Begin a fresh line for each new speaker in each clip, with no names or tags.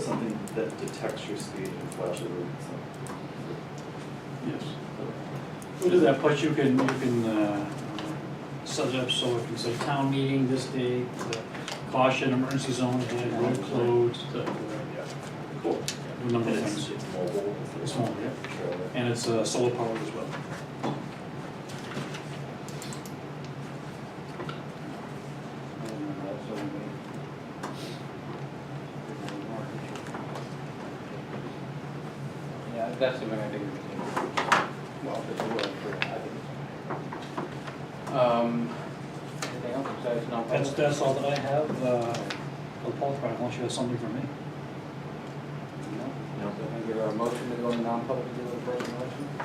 Something that detects your speed and flashes it, so.
Yes. We'll do that, but you can, you can uh, set it up so it can say town meeting this day, the caution, emergency zone, and road closed, the, yeah,
Cool.
a number
And
of
it's,
things.
it's mobile.
It's mobile, yeah.
Trailer.
And it's uh, solar powered as well.
Yeah, that's the one I think we can, well, if it's a word for it, I think it's. Um, anything else besides
That's,
non-public?
that's all that I have, uh, for the Paul Pride, unless you have something for me.
No?
No.
So can I get a motion to go into non-public to do a personal election?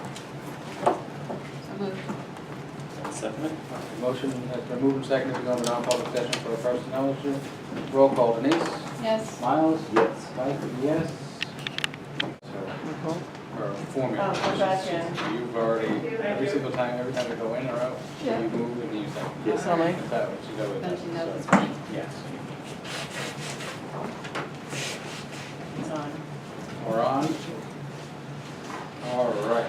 So moved.
Second it?
Motion has been moved and seconded to go into non-public session for a personnel issue. Roll call Denise,
Yes.
Miles,
Yes.
Mike, yes. So, or form your
Oh, I'm back in.
You've already, every single time, every time we go in or out, you
Yeah.
move and you second.
Yes.
Am I?
Is that what you go with that?
Don't you know this
So,
one?
Yes.
It's on.
We're on. All right,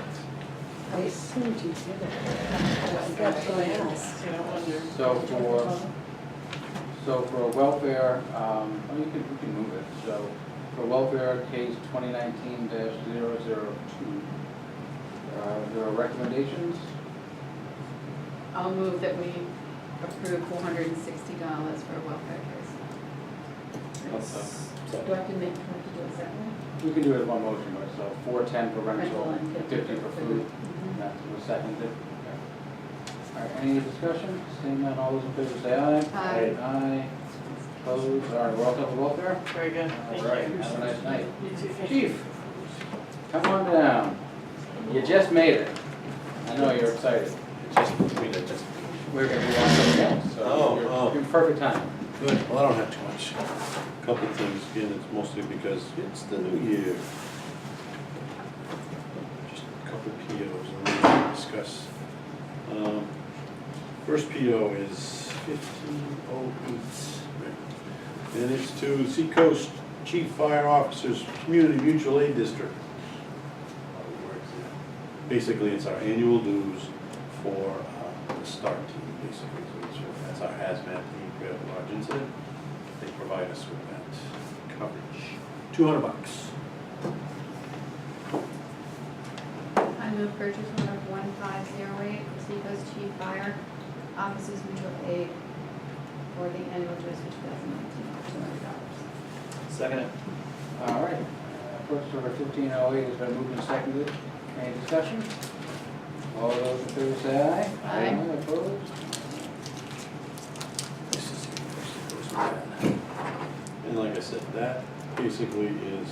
I assumed you did it. Got something else, I wonder.
so for, so for welfare, um, oh, you can, you can move it, so for welfare case twenty nineteen 2 uh, there are recommendations,
I'll move that we approve four hundred and sixty dollars for a welfare case.
Yes.
Do I have to make, do I have to do it separately?
you can do it in one motion, right, so four ten for
Rental
rental,
and
fifty for food, and that was seconded. Okay. All right, any discussion, seeing none, all those in favor say aye.
Aye.
Aye, opposed, all right, we're all set with welfare?
Very good,
All right, have a nice night.
You too, thank you.
Chief, come on down. You just made it. I know you're excited.
Just between it, just.
We're gonna be on something else,
Oh,
so
oh.
you're in perfect time.
Good, well, I don't have too much. Couple things, again, it's mostly because it's the new year. Just a couple POs I'm gonna discuss. Um, First PO is fifteen oh eight. And it's to Seacoast Chief Fire Officers Community Mutual Aid District. Basically, it's our annual dues for uh, the STAR team, basically, so it's- that's our hazmat team, if we have a large incident. They provide us with that coverage, two hundred bucks.
I move purchase order one five zero eight for Seacoast Chief Fire Officers Mutual Aid for the annual dues for two thousand nineteen, two hundred dollars.
Second it?
All right, Uh, purchase order fifteen oh eight has been moved and seconded. Any discussion? All those in favor say aye.
Aye.
Opposed?
This is- this goes bad. And like I said, that basically is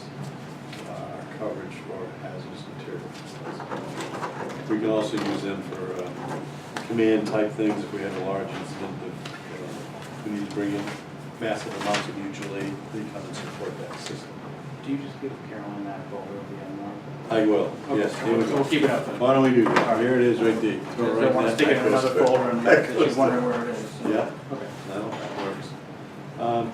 our coverage for hazardous materials. We can also use them for uh, command type things if we have a large incident that uh, we need to bring in massive amounts of mutual aid, they come and support that system.
Do you just give Caroline that over the other one?
I will,
Okay,
yes, here we
We'll
go.
keep it up then.
Why don't we do that? Here it is right there. Go
Because I
right
want to stick
there.
it in
That goes
another
quick.
folder and
That
she's
goes
wondering where it is. so-
Yeah.
Okay.
No, that works. Um,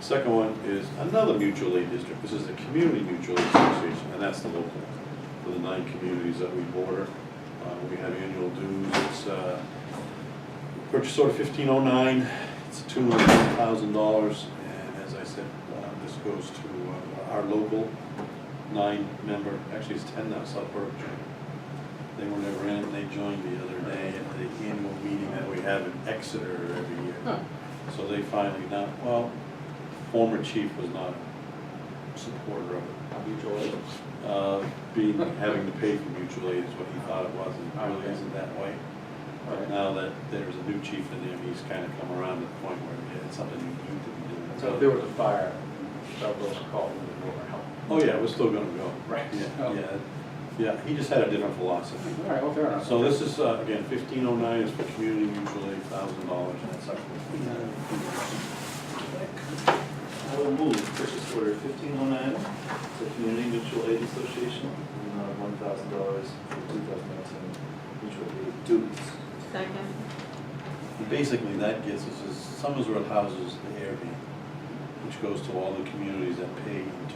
Second one is another mutual aid district. This is the Community Mutual Aid Association, and that's the local, one, for the nine communities that we border. Uh, We have annual dues, it's, uh, purchase order fifteen oh nine, it's two hundred thousand dollars. And as I said, uh, this goes to uh, our local nine-member, actually it's ten now, South Berkshire. They were never in, they joined the other day at the annual meeting that we have in Exeter every year. So they finally now, well, former chief was not a supporter of it.
Mutual aid.
Uh, Being, having to pay for mutual aid is what he thought it was, and it really isn't that way.
All
But
right.
now that there's a new chief in there, he's kind of come around to the point where yeah, it's something you need to be doing.
So if there was a fire, Douglas called and we were help.
Oh, yeah, we're still gonna go.
Right. Oh.
Yeah, yeah, yeah, he just had a different philosophy.
All right, well, fair enough.
So this is, uh, again, fifteen oh nine is for community mutual aid, thousand dollars, and that's up
I will move purchase order fifteen oh nine to Community Mutual Aid Association, in the amount of one thousand dollars for two thousand nineteen mutual aid dues.
Second.
And Basically, that gets us, is Somersworth houses the Airbnb, which goes to all the communities that pay into